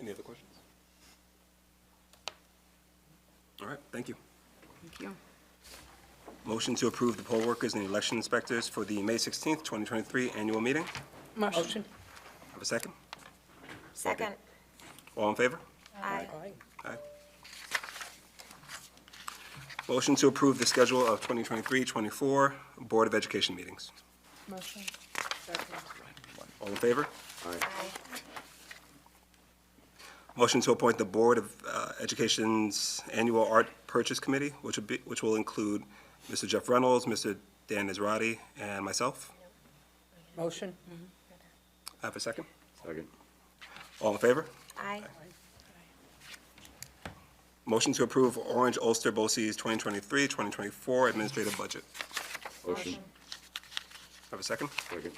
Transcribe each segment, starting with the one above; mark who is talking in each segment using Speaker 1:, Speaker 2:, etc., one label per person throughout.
Speaker 1: Any other questions? All right, thank you.
Speaker 2: Thank you.
Speaker 1: Motion to approve the poll workers and the election inspectors for the May 16th, 2023 annual meeting.
Speaker 2: Motion.
Speaker 1: Have a second?
Speaker 3: Second.
Speaker 1: All in favor?
Speaker 3: Aye.
Speaker 1: Aye. Motion to approve the schedule of 2023-24 Board of Education meetings.
Speaker 2: Motion.
Speaker 1: All in favor?
Speaker 3: Aye.
Speaker 1: Motion to appoint the Board of uh, Education's Annual Art Purchase Committee, which would be, which will include Mr. Jeff Reynolds, Mr. Dan Israedi, and myself.
Speaker 2: Motion.
Speaker 1: Have a second?
Speaker 4: Second.
Speaker 1: All in favor?
Speaker 3: Aye.
Speaker 1: Motion to approve Orange Ulster BOCES 2023-2024 administrative budget.
Speaker 4: Motion.
Speaker 1: Have a second?
Speaker 4: Second.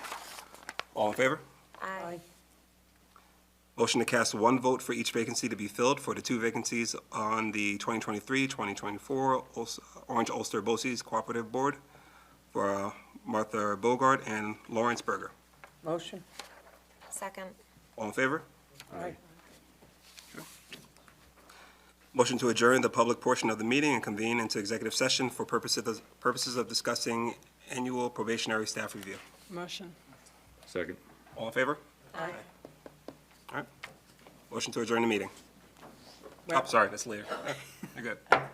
Speaker 1: All in favor?
Speaker 3: Aye.
Speaker 1: Motion to cast one vote for each vacancy to be filled for the two vacancies on the 2023-2024 Uls- Orange Ulster BOCES Cooperative Board for uh, Martha Bogart and Lawrence Berger.
Speaker 2: Motion.
Speaker 3: Second.
Speaker 1: All in favor?
Speaker 2: Aye.
Speaker 1: Motion to adjourn the public portion of the meeting and convene into executive session for purposes purposes of discussing annual probationary staff review.
Speaker 2: Motion.
Speaker 4: Second.
Speaker 1: All in favor?
Speaker 3: Aye.
Speaker 1: All right. Motion to adjourn the meeting. Oh, sorry, that's later. You're good.